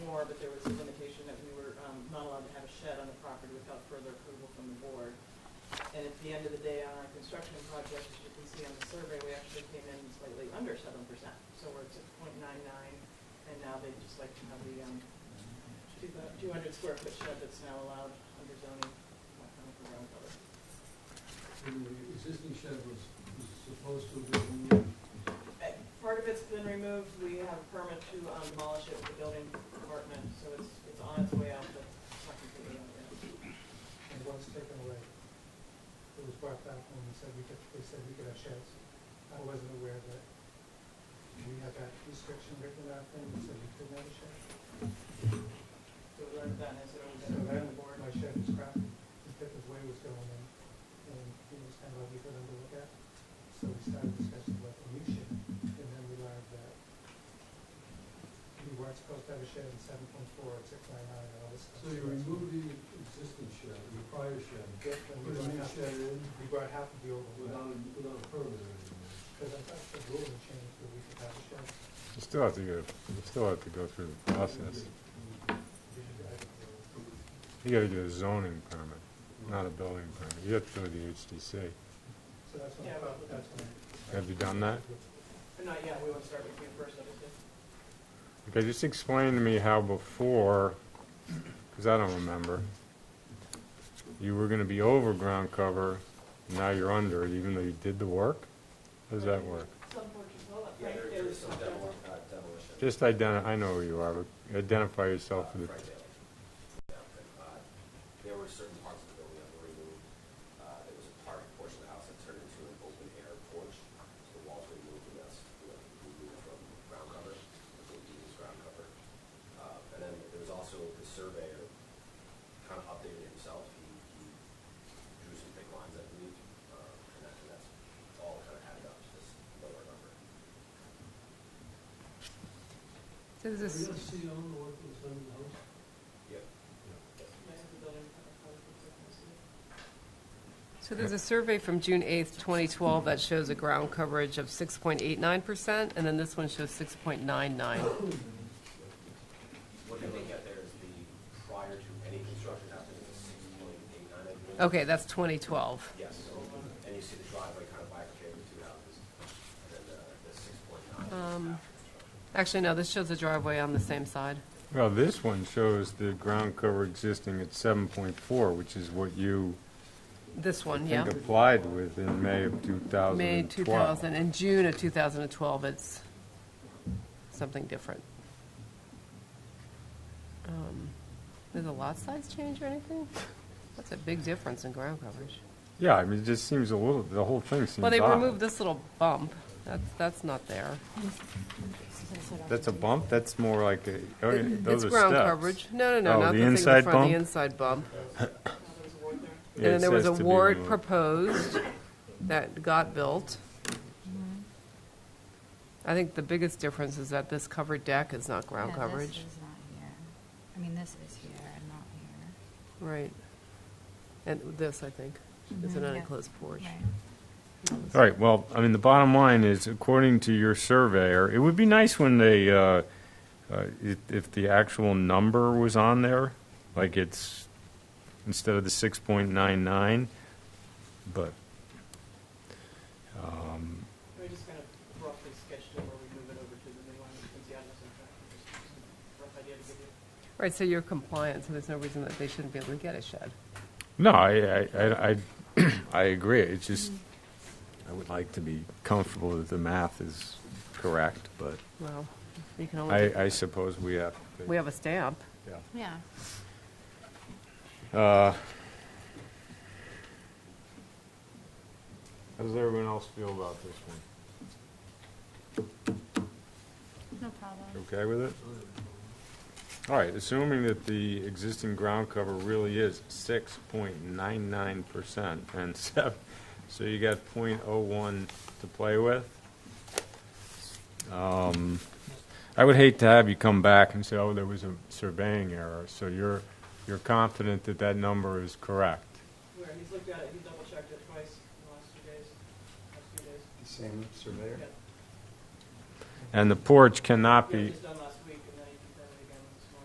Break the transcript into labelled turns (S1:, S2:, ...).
S1: that there was a limitation that we were um, not allowed to have a shed on the property without further approval from the board. And at the end of the day, on our construction project, as you can see on the survey, we actually came in slightly under seven percent. So we're at six point nine nine, and now they just like to have the um, two hundred square foot shed that's now allowed under zoning, not coming from ground cover.
S2: And the existing shed was, was supposed to have been,
S1: Uh, Part of it's been removed, we have a permit to um, demolish it with the building department, so it's, it's on its way out, but it's not completely on it.
S3: and was taken away. It was brought back when we said we could, they said we could have sheds. I wasn't aware that we had that restriction written out then, we said we couldn't have a shed.
S1: So we learned that, and so we
S3: So then,
S1: the board.
S3: my shed was crap, the tip of way was going in, and it was kind of ugly for them to look at. So we started discussing about the new shed, and then we learned that we weren't supposed to have a shed in seven point four or six nine nine and all this stuff.
S2: so you removed the existing shed, the prior shed,
S3: Yep, and we
S2: put a
S3: brought
S2: new
S3: half,
S2: shed in
S3: we brought half of the old one back.
S2: without, a- without a permit or anything.
S3: Because I thought the rule had changed that we could have a shed.
S4: You still have to go, you still have to go through the process. You gotta get a zoning permit, not a building permit. You have to go to the HDC.
S3: So that's when I
S1: Yeah,
S3: thought,
S1: but-
S3: that's when. I-
S4: Have you done that?
S1: But not yet, we want to start with you first, obviously.
S4: Okay, just explain to me how before, because I don't remember, you were gonna be over ground cover, now you're under, even though you did the work? How does that work?
S1: Some porches, well,
S5: Yeah,
S1: right,
S5: there-
S1: there
S5: there's
S1: was
S5: some
S1: some
S5: demol- uh, demolition.
S4: Just identi, I know who you are, but identify
S5: uh,
S4: yourself for the,
S5: Friday. Yeah, but, uh, There were certain parts of the building that were removed. Uh, There was a part, portion of the house that turned into an open air porch. So The walls were moved and that's, you know, moved from ground cover, the building was ground cover. Uh, And then there was also the surveyor kind of updated himself. He he drew some big lines, I believe. uh, And that- and that's all kind of added up to this lower number.
S6: So
S2: Are you
S6: this is,
S2: gonna see all the work that was done in the house?
S5: Yep.
S6: so there's a survey from June 8th, 2012 that shows a ground coverage of 6.89%, and then this one shows 6.99.
S5: What you're looking at there is the prior to any construction happening, it's six point eight nine, I believe.
S6: Okay, that's 2012.
S5: Yes, so, and you see the driveway kind of bifurcated with two houses, and then the, the six point nine is
S6: Um,
S5: after construction.
S6: Actually, no, this shows the driveway on the same side.
S4: well, this one shows the ground cover existing at seven point four, which is what you
S6: This
S4: I
S6: one, yeah.
S4: think applied with in May of two thousand
S6: May 2000, and June of 2012, it's something different. Um, Did the lot size change or anything? That's a big difference in ground coverage.
S4: Yeah, I mean, it just seems a little, the whole thing seems
S6: Well, they
S4: odd.
S6: removed this little bump. That's, that's not there.
S4: That's a bump? That's more like a, okay,
S6: It-
S4: those are steps.
S6: It's ground coverage. No, no,
S4: Oh,
S6: no, not
S4: the
S6: the thing with the
S4: inside
S6: front, the
S4: bump?
S6: inside bump.
S1: Well,
S4: Yeah,
S6: And
S4: it
S6: then there was a
S4: says to be
S6: ward
S4: removed.
S6: proposed that got built. I think the biggest difference is that this covered deck is not ground
S7: Yeah,
S6: coverage.
S7: This is not here. I mean, this is here and not here.
S6: Right. And this, I think, is an
S7: Mhm, yeah.
S6: unenclosed porch.
S7: Right.
S4: All right, well, I mean, the bottom line is, according to your surveyor, it would be nice when they, uh, uh, if, if the actual number was on there, like it's, instead of the six point nine nine, but, um,
S1: We just kind of roughly sketched it where we move it over to the new one, you can see on this in fact, just a rough idea to give you.
S6: Right, so you're compliant, so there's no reason that they shouldn't be able to get a shed.
S4: no, I, I, I, I- I agree, it's just, I would like to be comfortable that the math is correct, but
S6: Well, you can only,
S4: I, I suppose we have. to-
S6: we have a stamp.
S4: Yeah.
S7: Yeah.
S4: Uh, How does everyone else feel about this one?
S7: No problem.
S4: Okay with it? All right, assuming that the existing ground cover really is six point nine nine percent and seven, so you got point oh one to play with. Um, I would hate to have you come back and say, oh, there was a surveying error, so you're, you're confident that that number is correct?
S1: Where, he's looked at it, he double checked it twice in the last two days, last few days.
S8: Same surveyor?
S1: Yeah.
S4: And the porch cannot
S1: Yeah,
S4: be,
S1: just done